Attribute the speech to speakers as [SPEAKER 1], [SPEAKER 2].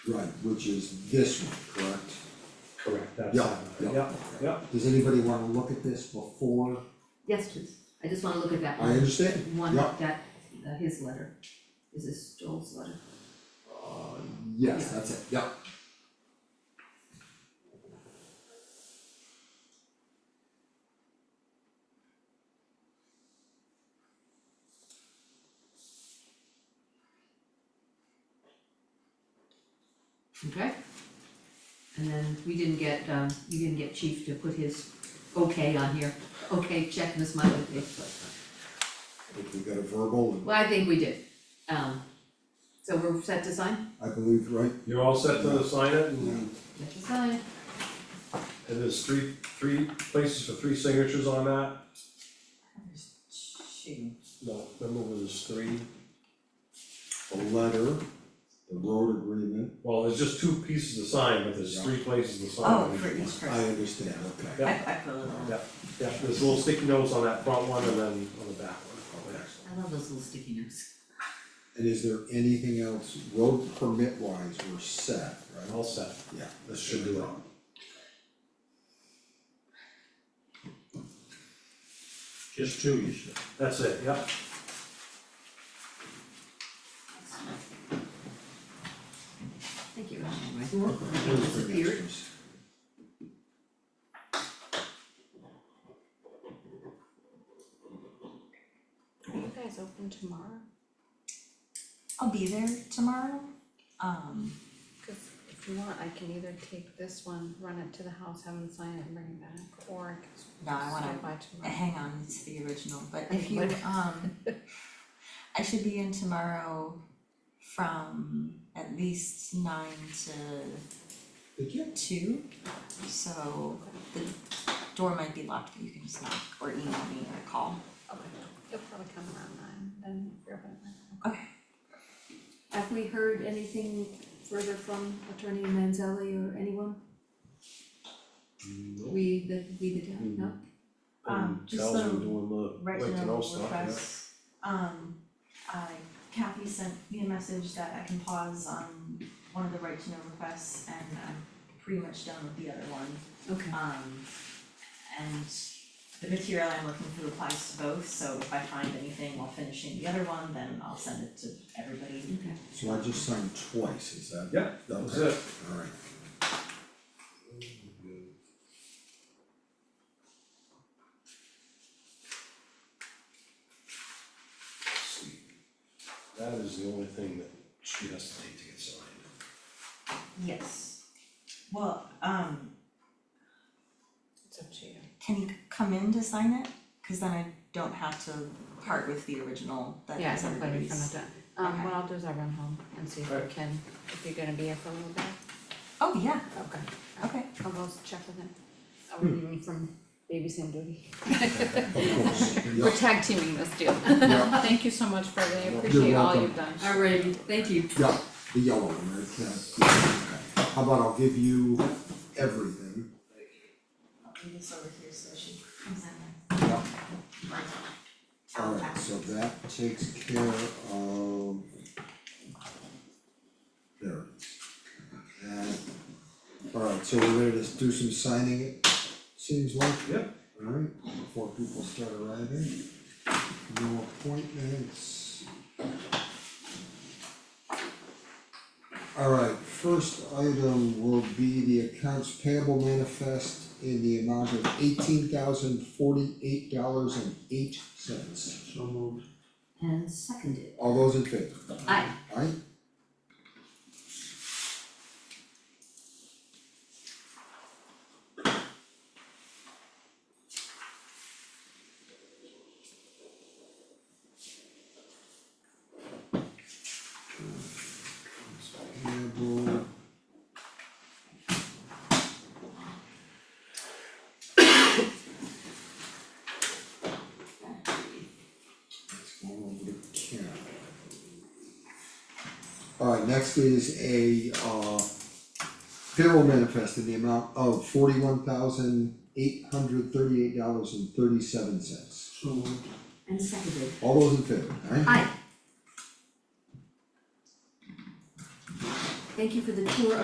[SPEAKER 1] Right, which is this one, correct?
[SPEAKER 2] Correct, that's.
[SPEAKER 1] Yeah, yeah.
[SPEAKER 2] Yep, yep,
[SPEAKER 1] Does anybody wanna look at this before?
[SPEAKER 3] Yes, please, I just wanna look at that
[SPEAKER 1] I
[SPEAKER 3] one,
[SPEAKER 1] understand,
[SPEAKER 3] one,
[SPEAKER 1] yeah.
[SPEAKER 3] that, uh, his letter, is this Joel's letter?
[SPEAKER 1] Uh, yes, that's it, yeah.
[SPEAKER 3] Okay. And then we didn't get, um, you didn't get Chief to put his okay on here, okay, check Miss Miley page, but,
[SPEAKER 1] I think we got a verbal, and
[SPEAKER 3] well, I think we did. Um, so we're set to sign,
[SPEAKER 1] I believe, right?
[SPEAKER 2] you're all set to sign it and
[SPEAKER 3] set to sign,
[SPEAKER 2] and there's three, three places for three signatures on that.
[SPEAKER 3] shooting,
[SPEAKER 2] No, remember there's three,
[SPEAKER 1] The letter, the road agreement,
[SPEAKER 2] well, there's just two pieces to sign, but there's three places to sign.
[SPEAKER 4] Oh, for each
[SPEAKER 1] I
[SPEAKER 4] person,
[SPEAKER 1] understand, okay.
[SPEAKER 2] Yeah.
[SPEAKER 4] I I put a little.
[SPEAKER 2] Yeah, there's little sticky notes on that front one and then on the back one.
[SPEAKER 3] I love those little sticky notes.
[SPEAKER 1] And is there anything else, road permit wise, we're set, right?
[SPEAKER 2] All set,
[SPEAKER 1] Yeah.
[SPEAKER 2] this should do it.
[SPEAKER 5] Just two, you said.
[SPEAKER 2] That's it, yep.
[SPEAKER 3] Thank you, Ryan, right?
[SPEAKER 1] Those are
[SPEAKER 3] Disappeared.
[SPEAKER 1] extras.
[SPEAKER 6] Are you guys open tomorrow?
[SPEAKER 4] I'll be there tomorrow, um,
[SPEAKER 6] Cause if you want, I can either take this one, run it to the house, have them sign it and bring it back, or I can
[SPEAKER 4] no, I wanna
[SPEAKER 6] stop by tomorrow.
[SPEAKER 4] hang on to the original, but if you,
[SPEAKER 6] What?
[SPEAKER 4] um, I should be in tomorrow from at least nine to
[SPEAKER 1] Did you?
[SPEAKER 4] two. So the door might be locked, but you can just knock or email me or call.
[SPEAKER 6] Okay, you'll probably come around nine, then if you're open at nine.
[SPEAKER 3] Have we heard anything further from Attorney Manzelli or anyone? We, the, we the town, no?
[SPEAKER 7] Um, just
[SPEAKER 2] Tells
[SPEAKER 7] the
[SPEAKER 2] them doing the wait to know
[SPEAKER 7] Reginald
[SPEAKER 2] stuff, yeah.
[SPEAKER 7] request, um, I, Kathy sent me a message that I can pause on one of the right to know requests and I'm pretty much done with the other one.
[SPEAKER 3] Okay,
[SPEAKER 7] Um, and the material I'm looking through applies to both, so if I find anything while finishing the other one, then I'll send it to everybody.
[SPEAKER 3] okay.
[SPEAKER 1] So I just signed twice, is that?
[SPEAKER 2] Yeah, that was it.
[SPEAKER 1] Alright.
[SPEAKER 2] That is the only thing that she has to take to get signed.
[SPEAKER 7] Yes. Well, um,
[SPEAKER 6] It's up to you.
[SPEAKER 4] Can you come in to sign it? Cause then I don't have to part with the original that
[SPEAKER 6] Yeah,
[SPEAKER 4] is
[SPEAKER 6] I'm
[SPEAKER 4] everybody's.
[SPEAKER 6] putting from the, um, what I'll do is I'll run home and see if I
[SPEAKER 2] Right.
[SPEAKER 6] can, if you're gonna be here for a little bit.
[SPEAKER 4] Oh, yeah,
[SPEAKER 6] Okay.
[SPEAKER 4] okay.
[SPEAKER 6] I'll go check with him. I'll remove him from babysitting duty.
[SPEAKER 1] Of course, yeah.
[SPEAKER 6] We're tag teaming this deal.
[SPEAKER 1] Yeah.
[SPEAKER 6] Thank you so much for I
[SPEAKER 2] You're
[SPEAKER 6] appreciate all
[SPEAKER 1] welcome.
[SPEAKER 6] you've done.
[SPEAKER 3] All righty, thank you.
[SPEAKER 1] Yeah, the yellow one, right, yeah, okay. How about I'll give you everything?
[SPEAKER 7] I'll do this over here so she comes in.
[SPEAKER 1] Yeah.
[SPEAKER 7] Right.
[SPEAKER 1] Alright, so that takes care of. There. Alright, so we're ready to do some signing, it seems like.
[SPEAKER 2] Yep.
[SPEAKER 1] Alright, before people start arriving. No appointments. Alright, first item will be the accounts payable manifest in the amount of eighteen thousand forty-eight dollars and eight cents.
[SPEAKER 5] So moved.
[SPEAKER 3] And seconded.
[SPEAKER 1] All those in favor?
[SPEAKER 3] Aye.
[SPEAKER 1] Aye? Payable. Let's go over to Karen. Alright, next is a uh payroll manifest in the amount of forty-one thousand eight hundred thirty-eight dollars and thirty-seven cents.
[SPEAKER 5] So moved.
[SPEAKER 3] And seconded.
[SPEAKER 1] All those in favor, aye?
[SPEAKER 3] Aye. Thank you for the tour